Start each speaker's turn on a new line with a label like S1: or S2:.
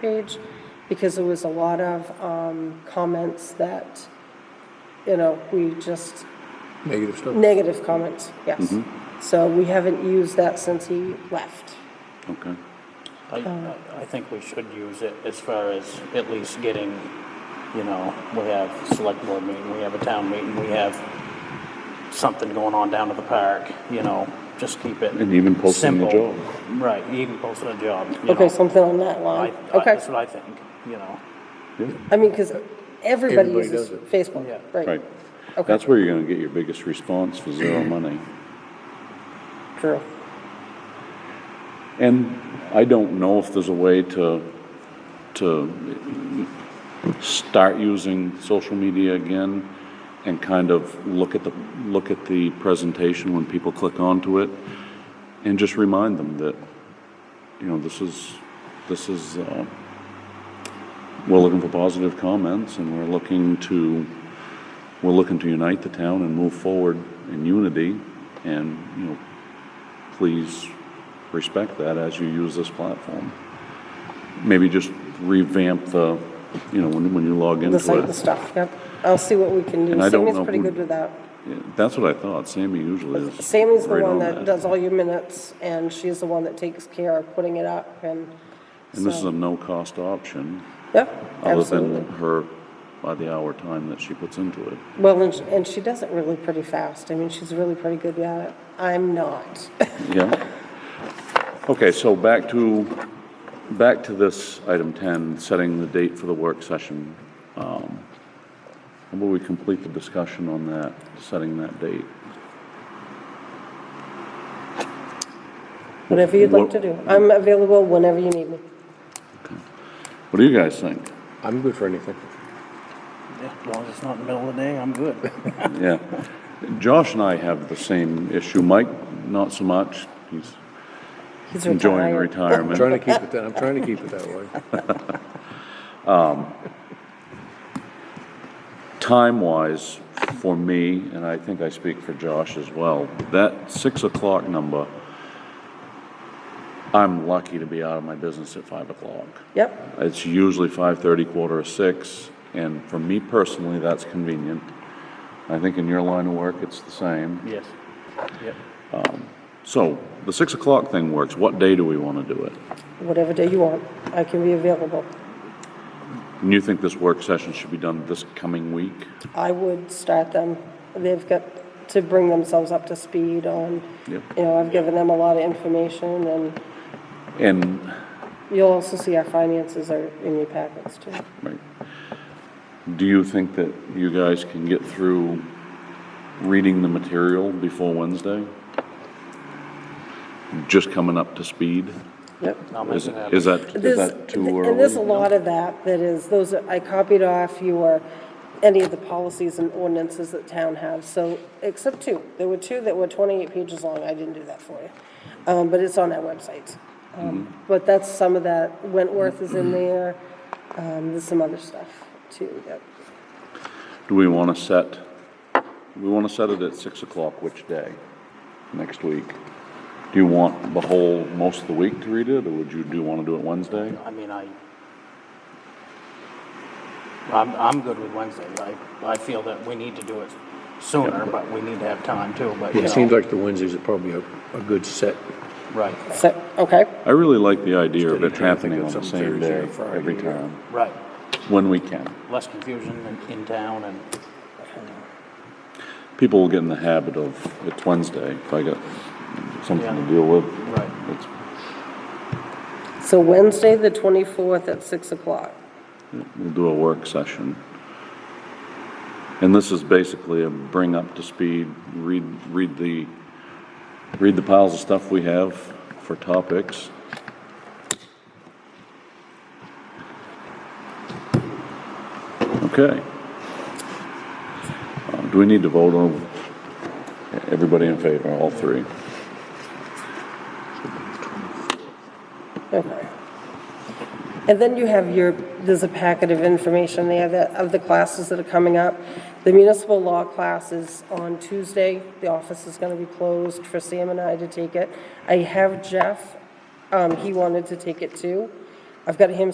S1: page, because there was a lot of um, comments that, you know, we just,
S2: Negative stuff.
S1: negative comments, yes.
S3: Mm-hmm.
S1: So we haven't used that since he left.
S3: Okay.
S4: I,
S1: Uh,
S4: I- I think we should use it as far as at least getting, you know, we have select board meeting, we have a town meeting, we have something going on down at the park, you know, just keep it.
S3: And even posting the
S4: simple.
S3: job.
S4: Right, even posting a job, you know.
S1: Okay, something on that
S4: I-
S1: line,
S4: I-
S1: okay.
S4: That's what I think, you know.
S1: I mean, because everybody
S2: Everybody
S1: uses
S2: does it.
S1: Facebook,
S4: Yeah.
S1: right?
S3: Right.
S1: Okay.
S3: That's where you're gonna get your biggest response for zero money.
S1: True.
S3: And I don't know if there's a way to, to start using social media again and kind of look at the, look at the presentation when people click onto it and just remind them that, you know, this is, this is, uh, we're looking for positive comments and we're looking to, we're looking to unite the town and move forward in unity and, you know, please respect that as you use this platform. Maybe just revamp the, you know, when, when you log
S1: The site
S3: into
S1: and
S3: it.
S1: stuff, yep. I'll see what we can do.
S3: And I don't
S1: Sammy's
S3: know
S1: pretty
S3: who-
S1: good with that.
S3: Yeah, That's what I thought, Sammy usually is.
S1: Sammy's the
S3: right
S1: one
S3: on
S1: that does all your minutes, and she's the one that takes care of putting it up, and,
S3: And this is a no-cost option,
S1: yep,
S3: other
S1: absolutely.
S3: than her by the hour time that she puts into it.
S1: Well, and, sh- and she does it really pretty fast. I mean, she's really pretty good at it. I'm not.
S3: Yeah. Okay, so back to, back to this item 10, setting the date for the work session. Um, How about we complete the discussion on that, setting that date?
S1: Whatever you'd like
S3: What-
S1: to do. I'm available whenever you need me.
S3: What do you guys think?
S2: I'm good for anything.
S4: Yeah, As long as it's not in the middle of the day, I'm good.
S3: Yeah. Josh and I have the same issue. Mike, not so much. He's
S1: He's
S3: enjoying
S1: retired.
S2: I'm
S3: retirement.
S2: trying to keep it that, I'm trying to keep it that way.
S3: time-wise, for me, and I think I speak for Josh as well, that six o'clock number, I'm lucky to be out of my business at five o'clock.
S1: Yep,
S3: It's usually five-thirty, quarter of six, and for me personally, that's convenient. I think in your line of work, it's the same.
S4: Yes. Yep.
S3: So, the six o'clock thing works. What day do we want to do it?
S1: whatever day you want, I can be available.
S3: And you think this work session should be done this coming week?
S1: I would start them. They've got to bring themselves up to speed on, you
S3: Yep.
S1: know, I've given them a lot of information, and
S3: And
S1: you'll also see our finances are in your packets, too.
S3: Right. Do you think that you guys can get through reading the material before Wednesday? Just coming up to speed?
S1: Yep.
S4: I'll make
S3: Is
S4: it happen.
S3: is that, is
S1: There's-
S3: that too early?
S1: And there's a lot of that that is, those, are- I copied off your, any of the policies and ordinances that town has, so, except two. There were two that were 28 pages long, I didn't do that for you. Um, But it's on our website. Um,
S3: Mm-hmm.
S1: But that's some of that, Wentworth is in there, um, there's some other stuff too, that,
S3: Do we want to set, do we want to set it at 6 o'clock which day, next week? Do you want the whole, most of the week to read it, or would you, do you want to do it Wednesday?
S4: I mean, I, I'm, I'm good with Wednesday. I, I feel that we need to do it sooner, but we need to have time too, but you
S2: It seems
S4: know.
S2: like the Wednesdays are probably a, a good set.
S4: Right,
S1: so, okay,
S3: I really like the idea of
S2: Instead of
S3: it
S2: trying to think
S3: happening on
S2: of some
S3: the same
S2: Thursday or
S3: day,
S2: Friday,
S3: every
S2: yeah.
S3: time,
S4: right.
S3: when we can.
S4: Less confusion in, in town and,
S3: people will get in the habit of, it's Wednesday, if I got something to
S4: Yeah.
S3: deal with.
S4: Right.
S3: it's-
S1: so Wednesday, the 24th at 6 o'clock.
S3: We'll do a work session. And this is basically a bring up to speed, read, read the, read the piles of stuff we have for topics. Okay. Uh, Do we need to vote on, everybody in favor, all three?
S1: Okay. And then you have your, there's a packet of information there that, of the classes that are coming up. The municipal law class is on Tuesday. The office is going to be closed for Sam and I to take it. I have Jeff, um, he wanted to take it too. I've got him